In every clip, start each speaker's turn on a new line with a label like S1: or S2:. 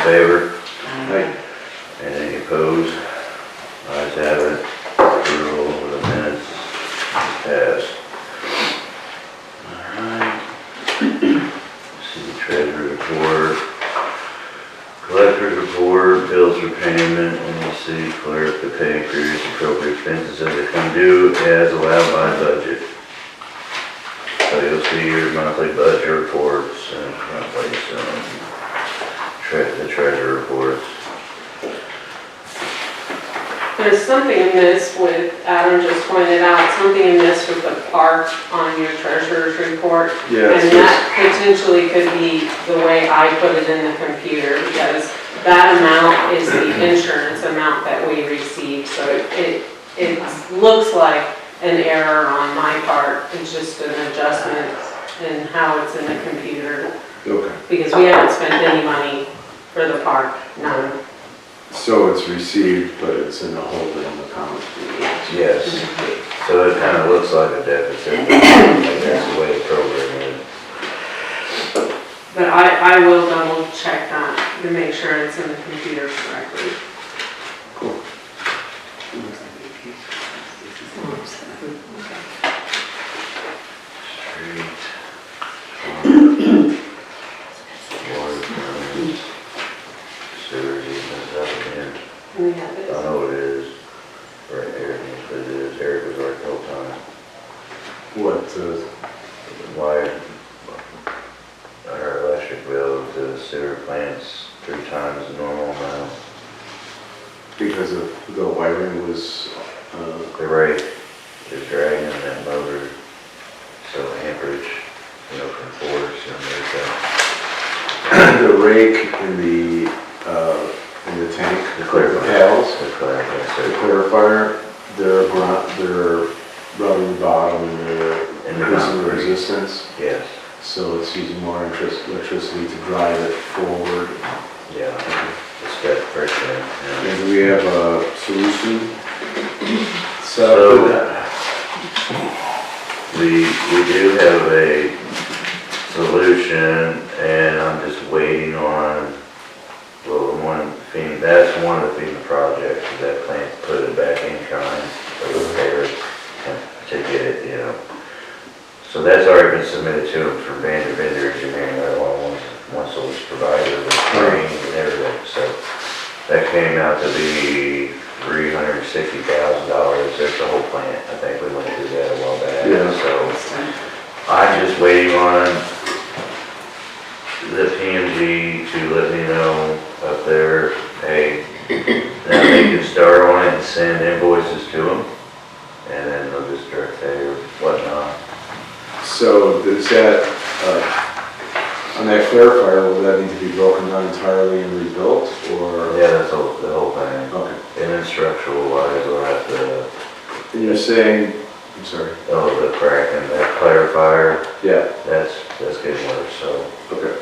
S1: favor?
S2: Aye.
S1: Any opposed? Ayes have it. Approval of the minutes passed. Alright. City treasurer report. Collector's report, bills for payment, and the city clerk to pay previous appropriate expenses as they come due as allowed by budget. So you'll see your monthly budget reports and monthly, um, tre- the treasurer reports.
S2: There's something amiss with, Adam just pointed out, something amiss with the park on your treasurer's report.
S3: Yeah,
S2: And
S3: it's just,
S2: that potentially could be the way I put it in the computer, because that amount is the insurance amount that we received, so it, it looks like an error on my part, it's just an adjustment in how it's in the computer,
S3: okay,
S2: because we haven't spent any money for the park, none.
S3: so it's received, but it's in the holding account.
S1: Yes, so it kind of looks like a deficit, like that's the way the program is.
S2: But I, I will double check that to make sure it's in the computer correctly.
S1: Street. Water permits. Sewer easements up here.
S2: We have
S1: I
S2: it.
S1: know what it is, right here, but it is, Eric was right the whole time.
S3: What, uh,
S1: Why, our electric bill to the sewer plants three times the normal amount.
S3: because of the wiring was, uh,
S1: The rate is dragging that motor, so amperage, you know, from force and there's that.
S3: the rake in the, uh, in the tank, the paddles,
S1: The
S3: the
S1: clarifier,
S3: clarifier, they're, bron- they're rubber bottom and they're
S1: And they're
S3: increasing the
S1: concrete.
S3: resistance,
S1: so, yes,
S3: so it's using more interest- electricity to drive it forward.
S1: yeah, it's got friction, yeah.
S3: And we have a solution.
S1: So,
S3: So,
S1: we, we do have a solution, and I'm just waiting on, well, one, FEMA, that's one of the FEMA projects, is that plant to put it back in kind, or repair it, and to get it, you know. So that's already been submitted to them from Vander Vendor Engineering, that one, once, once it was provided with training and everything, so. That came out to be three hundred and sixty thousand dollars, that's the whole plant, I think we went through that a while back,
S3: Yeah.
S1: so. I'm just waiting on the PMG to let me know up there, hey, now they can start on it and send invoices to them, and then they'll just direct pay or whatnot.
S3: So does that, uh, on that clarifier, will that need to be broken down entirely and rebuilt, or?
S1: Yeah, that's the whole, the whole thing,
S3: Okay,
S1: and then structural wise, we'll have to,
S3: and you're saying, I'm sorry,
S1: oh, the crack and that clarifier,
S3: yeah,
S1: that's, that's getting worse, so.
S3: okay.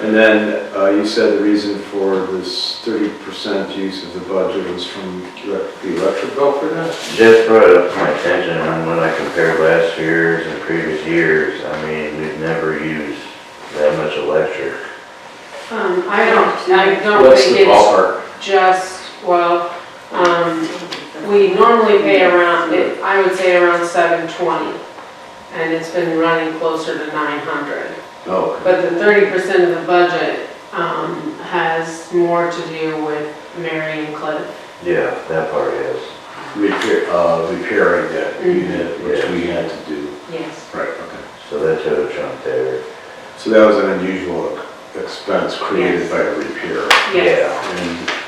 S3: And then, uh, you said the reason for this thirty percent use of the budget was from elec- the electric bill for that?
S1: Jeff brought it up to my attention, and when I compared last year's and previous years, I mean, we've never used that much electric.
S2: Um, I don't, I don't
S3: What's the
S2: think it's
S3: ballpark?
S2: just, well, um, we normally pay around, it- I would say around seven twenty. And it's been running closer to nine hundred.
S3: Oh, okay.
S2: But the thirty percent of the budget, um, has more to do with Mary and Cliff.
S1: Yeah, that part is.
S3: repair, uh, repairing that
S2: Mhm.
S3: unit, which we had to do.
S2: Yes.
S3: Right, okay.
S1: So that took a chunk there.
S3: So that was an unusual expense created
S2: Yes.
S3: by a repair.
S2: Yes.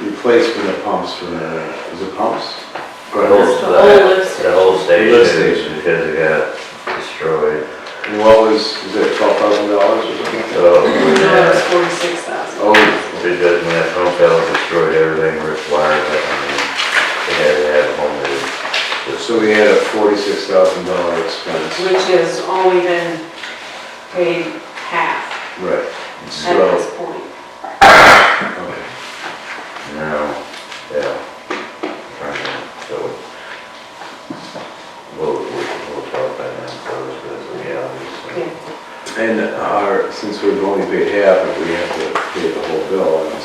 S3: And replacement of pumps for the, is it pumps?
S1: Yeah. The
S3: Or-
S1: whole,
S2: That's the whole lift
S1: the whole
S3: Lift
S1: station,
S3: station.
S1: because it got destroyed.
S3: And what was, was it twelve thousand dollars or something?
S1: So,
S2: No, it's
S1: yeah,
S2: forty-six thousand.
S3: Oh,
S1: Oh, because when that phone fell, it destroyed everything, ripped wires, I mean, they had to have a whole new.
S3: so we had a forty-six thousand dollar expense.
S2: Which has only been paid